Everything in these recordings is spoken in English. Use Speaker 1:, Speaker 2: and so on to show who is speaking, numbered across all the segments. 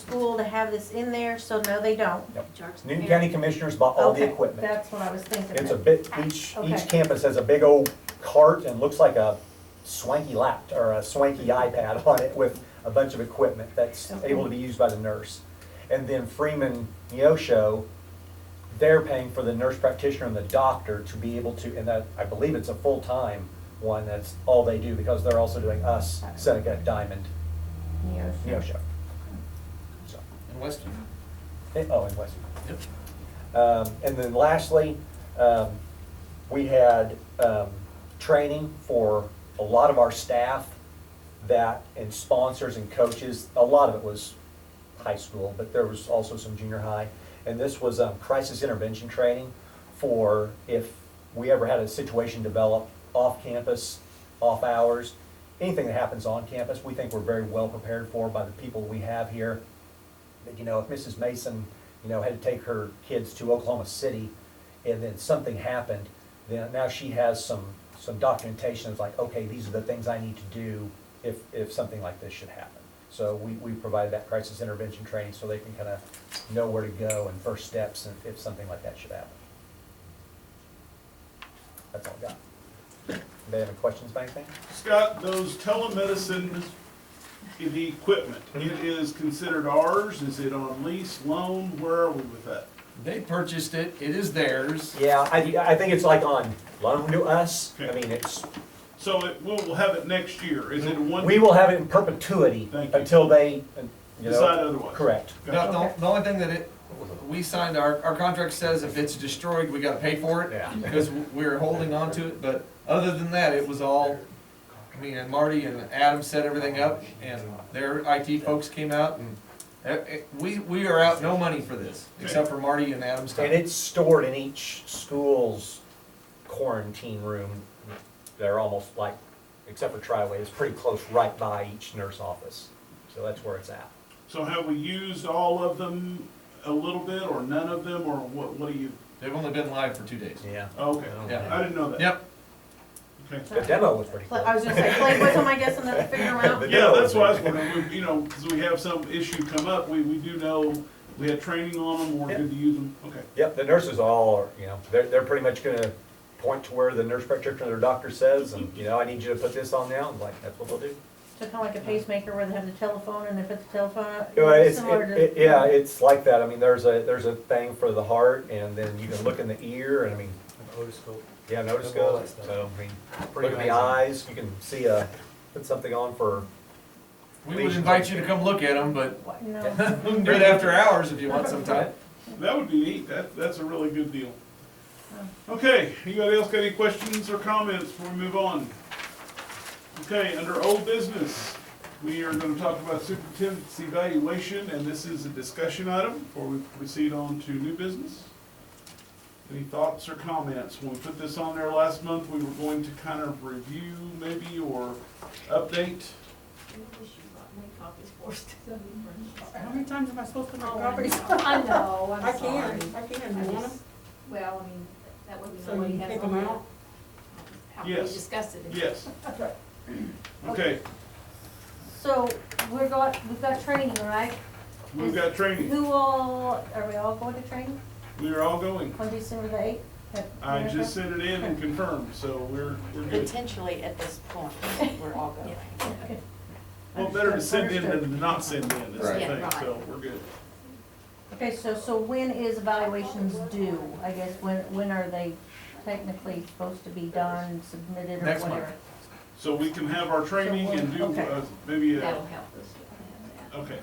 Speaker 1: school to have this in there, so no, they don't.
Speaker 2: Newton County Commissioners bought all the
Speaker 1: Okay,
Speaker 2: equipment.
Speaker 1: That's what I was thinking.
Speaker 2: It's a bit, each,
Speaker 1: Okay.
Speaker 2: each campus has a big old cart and looks like a swanky laptop or a swanky iPad on it with a bunch of equipment that's
Speaker 1: Okay.
Speaker 2: able to be used by the nurse. And then Freeman Neosho, they're paying for the nurse practitioner and the doctor to be able to, and that, I believe it's a full-time one, that's all they do because they're also doing us, Seneca Diamond, Neosho. So,
Speaker 3: In Weston.
Speaker 2: eh, Oh, and Western.
Speaker 3: Yep.
Speaker 2: Um, And then lastly, um, we had um, training for a lot of our staff that, and sponsors and coaches. A lot of it was high school, but there was also some junior high. And this was um, crisis intervention training for if we ever had a situation develop off campus, off hours, anything that happens on campus, we think we're very well prepared for by the people we have here that, you know, if Mrs. Mason, you know, had to take her kids to Oklahoma City and then something happened, then now she has some, some documentation, it's like, okay, these are the things I need to do if, if something like this should happen. So we, we provided that crisis intervention training so they can kind of know where to go and first steps and if something like that should happen. That's all I got. Anybody have any questions about anything?
Speaker 4: Scott, those telemedicine, the equipment, it is considered ours, is it on lease, loan, where are we with that?
Speaker 3: They purchased it, it is theirs.
Speaker 2: Yeah, I, I think it's like on loan to us. I
Speaker 4: Okay.
Speaker 2: mean, it's,
Speaker 4: So it, we'll, we'll have it next year, is it a one?
Speaker 2: We will have it in perpetuity
Speaker 4: Thank you.
Speaker 2: until they, you
Speaker 4: Decide
Speaker 2: know,
Speaker 4: otherwise.
Speaker 2: correct.
Speaker 3: No, the, the only thing that it, we signed, our, our contract says if it's destroyed, we gotta pay for it.
Speaker 2: Yeah.
Speaker 3: Because we're holding on to it, but other than that, it was all, I mean, and Marty and Adam set everything up and their IT folks came out and eh, eh, we, we are out no money for this, except for Marty and Adam's
Speaker 2: And
Speaker 3: time.
Speaker 2: it's stored in each school's quarantine room. They're almost like, except for Triway, it's pretty close right by each nurse office. So that's where it's at.
Speaker 4: So have we used all of them a little bit, or none of them, or what, what do you, oh,
Speaker 3: They've only been live for two days.
Speaker 2: Yeah.
Speaker 4: okay,
Speaker 3: Yeah.
Speaker 4: I didn't know that.
Speaker 3: Yep,
Speaker 2: The
Speaker 4: Okay.
Speaker 2: demo was pretty
Speaker 1: Pla-
Speaker 2: cool.
Speaker 1: I was gonna say, play with them, I guess, and then figure them out.
Speaker 4: Yeah, that's why I was wondering, we- you know, because we have some issue come up, we, we do know, we had training on them, we're good to use them, okay.
Speaker 2: Yep, the nurses all are, you know, they're, they're pretty much gonna point to where the nurse practitioner or their doctor says, and, you know, I need you to put this on now, and like, that's what they'll do.
Speaker 1: So kind of like a pacemaker where they have the telephone and they put the telephone,
Speaker 2: Well, it's,
Speaker 1: similar
Speaker 2: it,
Speaker 1: to.
Speaker 2: it- yeah, it's like that. I mean, there's a, there's a thing for the heart and then you can look in the ear and I mean,
Speaker 5: Otoscope.
Speaker 2: yeah, notice
Speaker 5: All
Speaker 2: goes.
Speaker 5: that stuff.
Speaker 2: So, I mean,
Speaker 5: Pretty
Speaker 2: look in the
Speaker 5: amazing.
Speaker 2: eyes, you can see a, put something on for,
Speaker 3: we would invite you to come look at them, but
Speaker 1: What? No,
Speaker 3: we can do it after hours if you want sometime.
Speaker 4: That would be neat, that, that's a really good deal. Okay, anybody else got any questions or comments before we move on? Okay, under old business, we are gonna talk about superintendent's evaluation, and this is a discussion item before we proceed on to new business. Any thoughts or comments? When we put this on there last month, we were going to kind of review maybe or update.
Speaker 6: How many times am I supposed to make copies?
Speaker 7: I know,
Speaker 6: Oh, I
Speaker 7: I'm sorry.
Speaker 6: can, I can,
Speaker 7: I
Speaker 6: you want 'em?
Speaker 7: just- Well, I mean, that would be.
Speaker 6: So you pick them out?
Speaker 7: How we
Speaker 4: Yes.
Speaker 7: discussed it.
Speaker 4: Yes. Okay,
Speaker 1: so we're got, we've got training, right?
Speaker 4: we've got training.
Speaker 1: Who all, are we all going to training
Speaker 4: We are all going.
Speaker 1: on December the eighth?
Speaker 4: I just sent it in and confirmed, so we're, we're good.
Speaker 8: Potentially at this point, we're all going.
Speaker 4: Well, better to send in than to not send in, is the
Speaker 8: Right.
Speaker 4: thing,
Speaker 8: Yeah,
Speaker 4: so we're good.
Speaker 1: Okay, so, so when is evaluations due? I guess, when, when are they technically supposed to be done, submitted, or
Speaker 3: Next month.
Speaker 1: whatever?
Speaker 4: So we can have our training and do,
Speaker 1: Okay.
Speaker 4: uh, maybe, a-
Speaker 7: That'll help us with that.
Speaker 4: okay.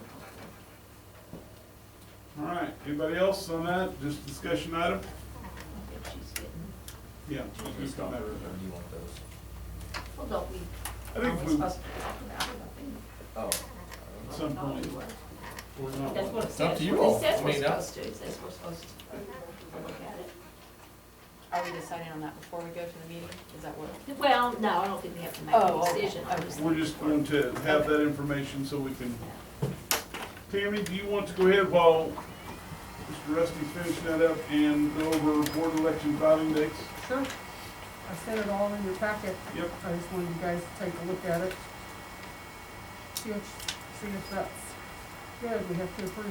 Speaker 4: All right, anybody else on that? Just discussion item?
Speaker 7: If she's getting,
Speaker 4: Yeah. it's just a matter of-
Speaker 5: you want those?
Speaker 7: well, don't we,
Speaker 4: I
Speaker 7: aren't
Speaker 4: think
Speaker 7: we
Speaker 4: we,
Speaker 7: supposed to talk about it? I think-
Speaker 5: Oh.
Speaker 4: at some
Speaker 7: thought we
Speaker 4: point,
Speaker 7: were.
Speaker 4: we're not.
Speaker 7: That's what it
Speaker 3: It's up
Speaker 7: says.
Speaker 3: to you
Speaker 7: It
Speaker 3: all.
Speaker 7: says
Speaker 3: I
Speaker 7: we're
Speaker 3: mean, uh,
Speaker 7: supposed to, it says we're supposed to look at it.
Speaker 8: Are we deciding on that before we go to the meeting? Is that what?
Speaker 7: Well, no, I don't think we have to make
Speaker 8: Oh,
Speaker 7: a
Speaker 8: okay.
Speaker 7: decision. I'm just-
Speaker 4: We're just going to have that information so we can. Tammy, do you want to go ahead while Mr. Rusty's finishing that up and go over board election filing dates?
Speaker 6: Sure. I sent it all in your packet.
Speaker 4: Yep.
Speaker 6: I just wanted you guys to take a look at it. See if, see if that's Good, we have to approve